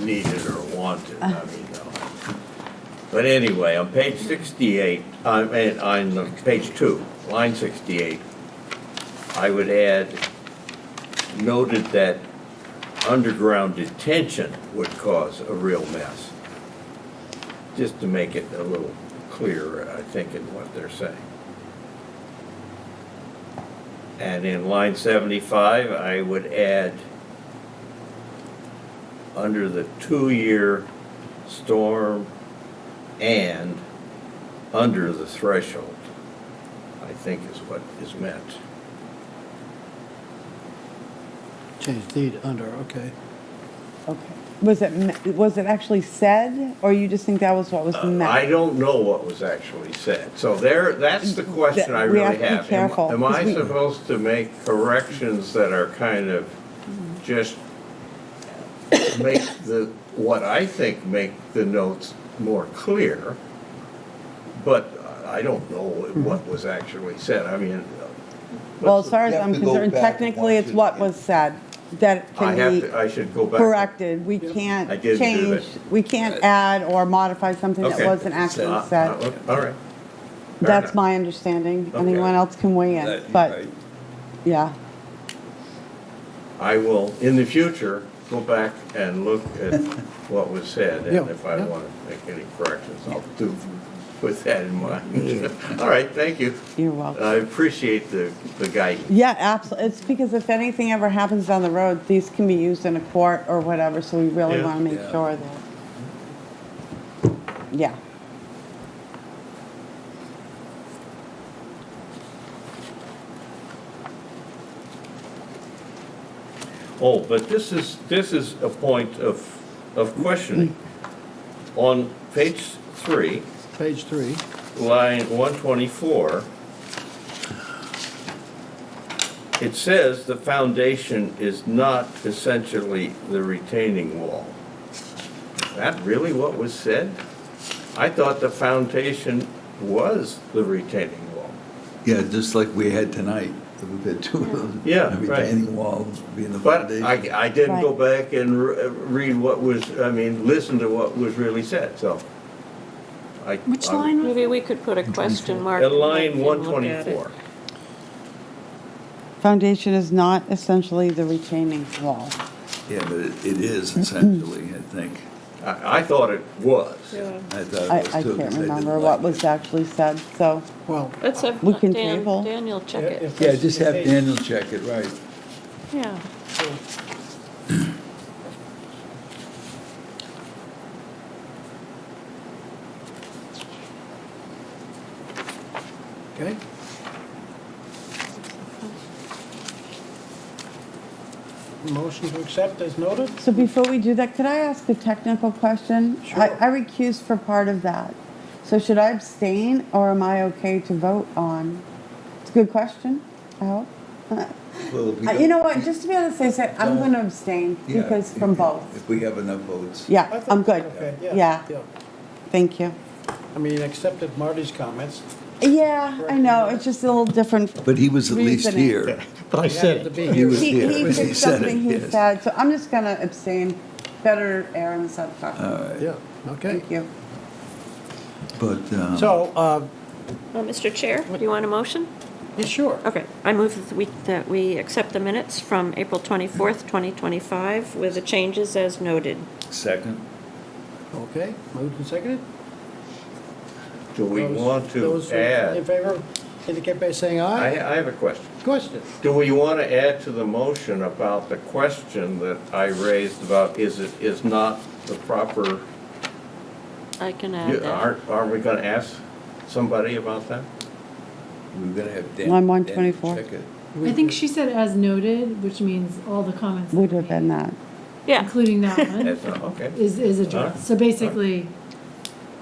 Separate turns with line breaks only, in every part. needed or wanted, I mean, no. But anyway, on page sixty-eight, I mean, on uh, page two, line sixty-eight, I would add noted that underground detention would cause a real mess. Just to make it a little clearer, I think, in what they're saying. And in line seventy-five, I would add under the two-year storm and under the threshold, I think is what is meant.
Change need under, okay.
Okay. Was it, me- was it actually said, or you just think that was what was
Uh,
meant?
I don't know what was actually said, so there, that's the question I
We
really
have to be
have. Am-
careful,
Am I
'cause we-
supposed to make corrections that are kind of just make the, what I think make the notes more clear? But I don't know what was actually said, I mean.
Mm-hmm.
uh,
Well, as far as
You have
I'm
to go
concerned,
back and
technically,
watch
it's
it
what
again.
was said that
I
can
have
be
to, I should go back.
corrected. We
I
can't
didn't do
change,
that.
we can't add or modify something that
Okay.
wasn't actually
Uh,
said.
uh, All right. Fair
That's
enough.
my understanding.
Okay.
Anyone else can weigh in, but, yeah.
I will, in the future, go back and look at what was said, and
Yeah,
if I
yeah.
want to make any corrections, I'll do with that in mind. All right, thank you.
You're welcome.
I appreciate the, the guidance.
Yeah, absolutely. It's because if anything ever happens down the road, these can be used in a court or whatever, so we really
Yeah.
want to make
Yeah.
sure that. Yeah.
Oh, but this is, this is a point of, of questioning.
Mm.
On page three,
Page three,
line 124, it says the foundation is not essentially the retaining wall. Is that really what was said? I thought the foundation was the retaining wall.
Yeah, just like we had tonight, we've had two of them.
Yeah,
A
right.
Retaining wall being the
But
foundation.
I, I didn't go back and re- read what was, I mean, listen to what was really said, so. I-
Which
I'm-
line? Maybe we could put a question mark.
At line
and look at it.
124.
Foundation is not essentially the retaining wall.
Yeah, but it it
Mm-hmm.
is essentially, I think.
I, I thought it was.
I thought
I,
it
I
was too. 'cause
can't
didn't
remember
like
what
it.
was actually said, so,
well,
Let's have
We can
Dan,
table.
Daniel check it.
Yeah, just have Daniel check it, right.
Yeah.
okay. Motion to accept as noted?
so before we do that, could I ask a technical question?
Sure.
I I recused for part of that, so should I abstain, or am I okay to vote on? It's a good question, I hope.
Well, if we
Uh,
don't-
You know what, just to be on the safe side, I'm
Don't-
gonna abstain,
yeah,
because
if-
from
if-
both.
If we have enough votes.
I
Yeah,
think-
I'm good.
Okay,
Yeah,
yeah.
thank you.
I mean, accepted Marty's comments.
Yeah, I know, it's just a little different.
But he was at least
Reasoning.
here.
But I
You
said
have
it.
to be
He
here.
was
He,
here.
he
when
picked
said it,
something he
yes.
said, so I'm just gonna abstain. Better err on the side of
Uh,
caution.
Yeah, okay.
Thank you.
But, um,
So, uh,
Well, Mr. Chair, do you want a motion?
yeah, sure.
Okay, I move that we, that we accept the minutes from April 24th, 2025 with the changes as noted.
second,
Okay, moved and seconded.
Do we
Those-
want to
those In
add,
favor, indicate by saying
I,
aye.
I have a question.
Question.
Do we want to add to the motion about the question that I raised about is it, is not the proper,
I can add
you-
that.
aren't, aren't we going to ask somebody about that?
we we're gonna have Dan.
I'm
Dan
124.
Check it.
I think she said as noted, which means all the comments.
Would have been that.
Yeah,
Including that one,
That's not, okay.
is, is
Alright.
addressed. So basically,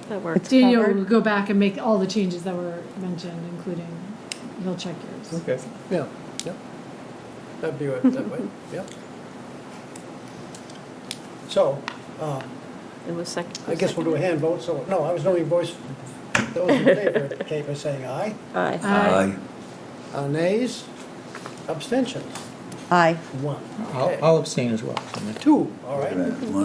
that works.
Daniel
covered.
will go back and make all the changes that were mentioned, including, he'll check yours.
Okay.
Yeah, yeah. That'd be right, that way, yeah. So, um,
It was second.
I guess we'll do a hand vote, so, no, I was knowing voice, those in favor, indicate by saying aye.
Aye.
Aye.
Uh, Nays, abstentions,
Aye.
one.
I'll
Okay.
I'll abstain as well.
Two, all right.
Right.